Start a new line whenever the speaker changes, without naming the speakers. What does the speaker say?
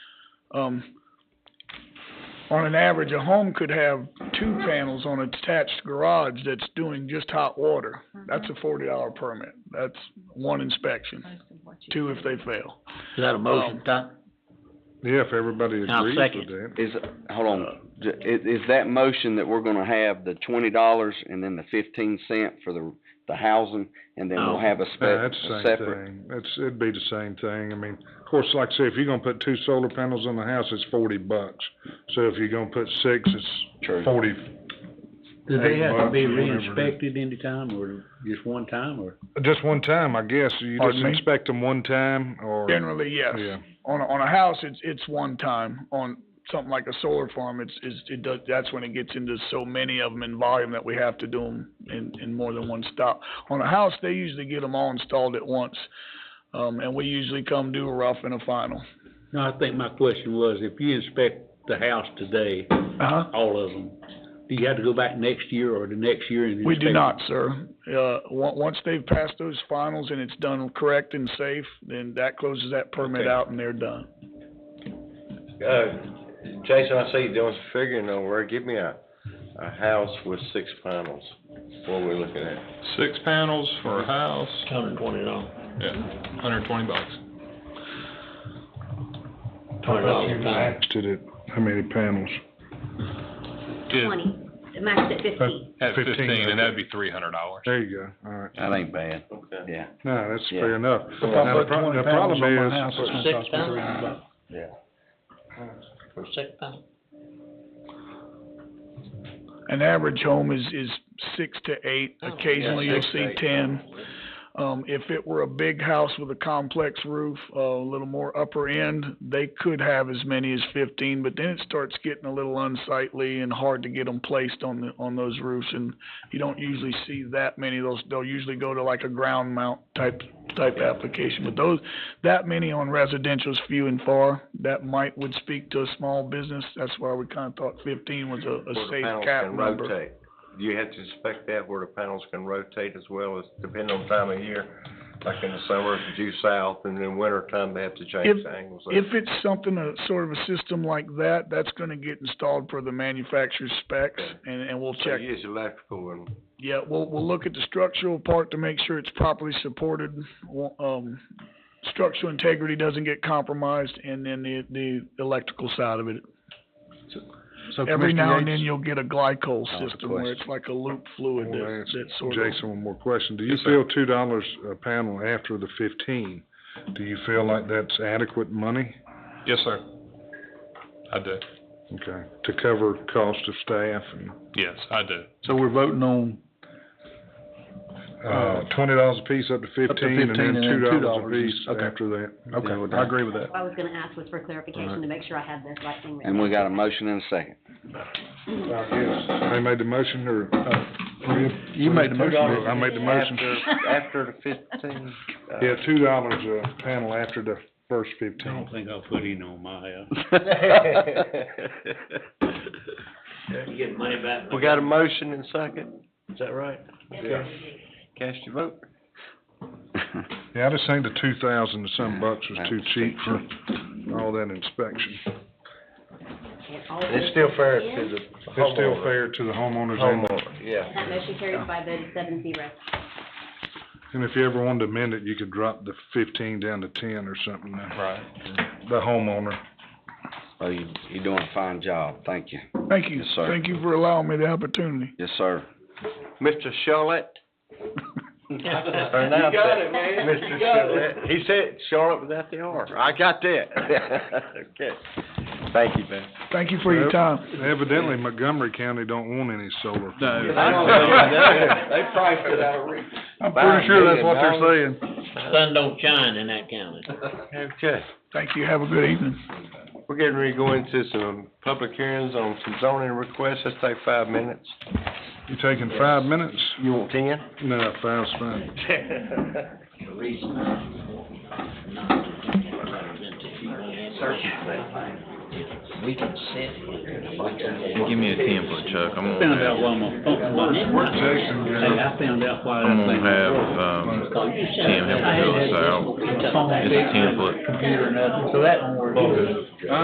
Um, on an average, a home could have two panels on a detached garage that's doing just hot water. That's a forty dollar permit. That's one inspection, two if they fail.
Is that a motion, Tom?
Yeah, if everybody
I'll
agrees
second.
with that.
Is, hold on, J- i- is that motion that we're gonna have the twenty dollars and then the fifteen cent for the, the housing? And then
No.
we'll have a spe-
Yeah, that's
a
the same
separate,
thing. That's, it'd be the same thing. I mean, of course, like I say, if you're gonna put two solar panels on the house, it's forty bucks. So if you're gonna put six, it's
true.
forty.
Do they
Hey,
have to be
Bob, whatever it is.
re-inspected anytime, or just one time, or?
Just one time, I guess. You
Pardon
just
me?
inspect them one time or,
Generally, yes.
yeah.
On a, on a house, it's, it's one time. On something like a solar farm, it's, it's, it does, that's when it gets into so many of them in volume that we have to do them in, in more than one stop. On a house, they usually get them all installed at once. Um, and we usually come do a rough and a final.
No, I think my question was, if you inspect the house today,
Uh-huh.
all of them, do you have to go back next year or the next year and inspect?
We do
them?
not, sir. Uh, on- once they've passed those finals and it's done correct and safe, then that closes that permit
Okay.
out and they're done.
Uh, Jason, I see you doing some figuring over there. Give me a, a house with six panels. What are we looking at?
Six panels for a house,
Hundred and twenty dollars.
yeah, hundred twenty bucks.
Twenty dollars.
Maxed it at how many panels?
twenty, the max at fifty.
At fifteen, and that'd
okay.
be three hundred dollars.
There you go, all right.
That ain't bad,
Okay.
yeah.
No, that's
Yeah.
fair enough.
If I
Now, the
put
pro-
20
the
panels
problem
on my
is-
house, it's gonna cost
Six
me
pounds?
Yeah.
For six pounds?
An average home is, is six to eight,
Oh, yeah,
occasionally you'll
six to
see
eight.
ten. Um, if it were a big house with a complex roof, uh, a little more upper end, they could have as many as fifteen, but then it starts getting a little unsightly and hard to get them placed on the, on those roofs, and you don't usually see that many of those, they'll usually go to like a ground mount type, type application, but those, that many on residential's few and far, that might, would speak to a small business, that's why we kinda thought fifteen was a, a
Where the
safe
panels
cap
can
number.
rotate. Do you have to inspect that where the panels can rotate as well as depending on time of year? Like in the summer, it's due south, and in winter time, they have to change
If-
the angles. of-
If it's something, a sort of a system like that, that's gonna get installed per the manufacturer's specs,
Okay.
and, and we'll
So
check.
you use electrical and,
Yeah, we'll, we'll look at the structural part to make sure it's properly supported, wa- um, structural integrity doesn't get compromised, and then the, the electrical side of it.
So
Every
Commissioner
now and
Yates-
then you'll get a glycol
That was a
system where
question.
it's like a loop fluid
Well,
that,
that's-
that sort of.
Jason, one more question. Do you
Yes, sir.
feel two dollars a panel after the fifteen? Do you feel like that's adequate money?
Yes, sir. I do,
Okay, to cover cost of staff and,
yes, I do.
So we're voting on,
uh, twenty dollars a piece up to fifteen and
15
then
and
two
then
dollars a
$2
piece
okay.
after that.
okay, I agree with that.
I was gonna ask was for clarification to make sure I had the right thing written.
And we got a motion and a second.
Yes. They made the motion or, uh,
You made the motion.
I made the motion.
after the fifteen, uh,
Yeah, two dollars a panel after the first
I
fifteen.
don't think I'll put in on my, uh.
Uh,
You get money back.
We got a motion and second, is that right?
Yeah.
Cast your vote.
Yeah, I just think the two thousand and some bucks was
That
too
was
cheap for all that inspection.
It's still fair to the
It's still fair to the homeowners and the
Homeowner, yeah.
That motion carries by a vote of seven zero.
And if you ever wanted to amend it, you could drop the fifteen down to ten or something, uh,
Right.
the homeowner.
Oh, you, you're doing a fine job, thank you.
Thank you,
Yes, sir.
thank you for allowing me the opportunity.
Yes, sir.
Mr. Charlotte?
You got it, man.
Mr.
You got it.
Charlotte, he said Charlotte without the R, I got that. Okay, thank you, man.
Thank you for your
Yep.
time.
Evidently Montgomery County don't want any solar.
They probably put out a re-
I'm pretty sure that's what they're saying.
Sun don't shine in that county.
Okay,
Thank you, have a good evening.
we're getting ready to go into some public hearings on some zoning requests, let's take five minutes.
You taking five minutes?
You want ten?
No, five's fine.
The reason I'm not representing you is We can sit here.
Give me a template, Chuck, I'm
Found out why my phone, why,
Jason,
hey, I found out why that
I'm
thing.
gonna have, um, Tim help me fill this out.
Phone
It's a
fixed and
template.
Computer, nothing, so that don't work.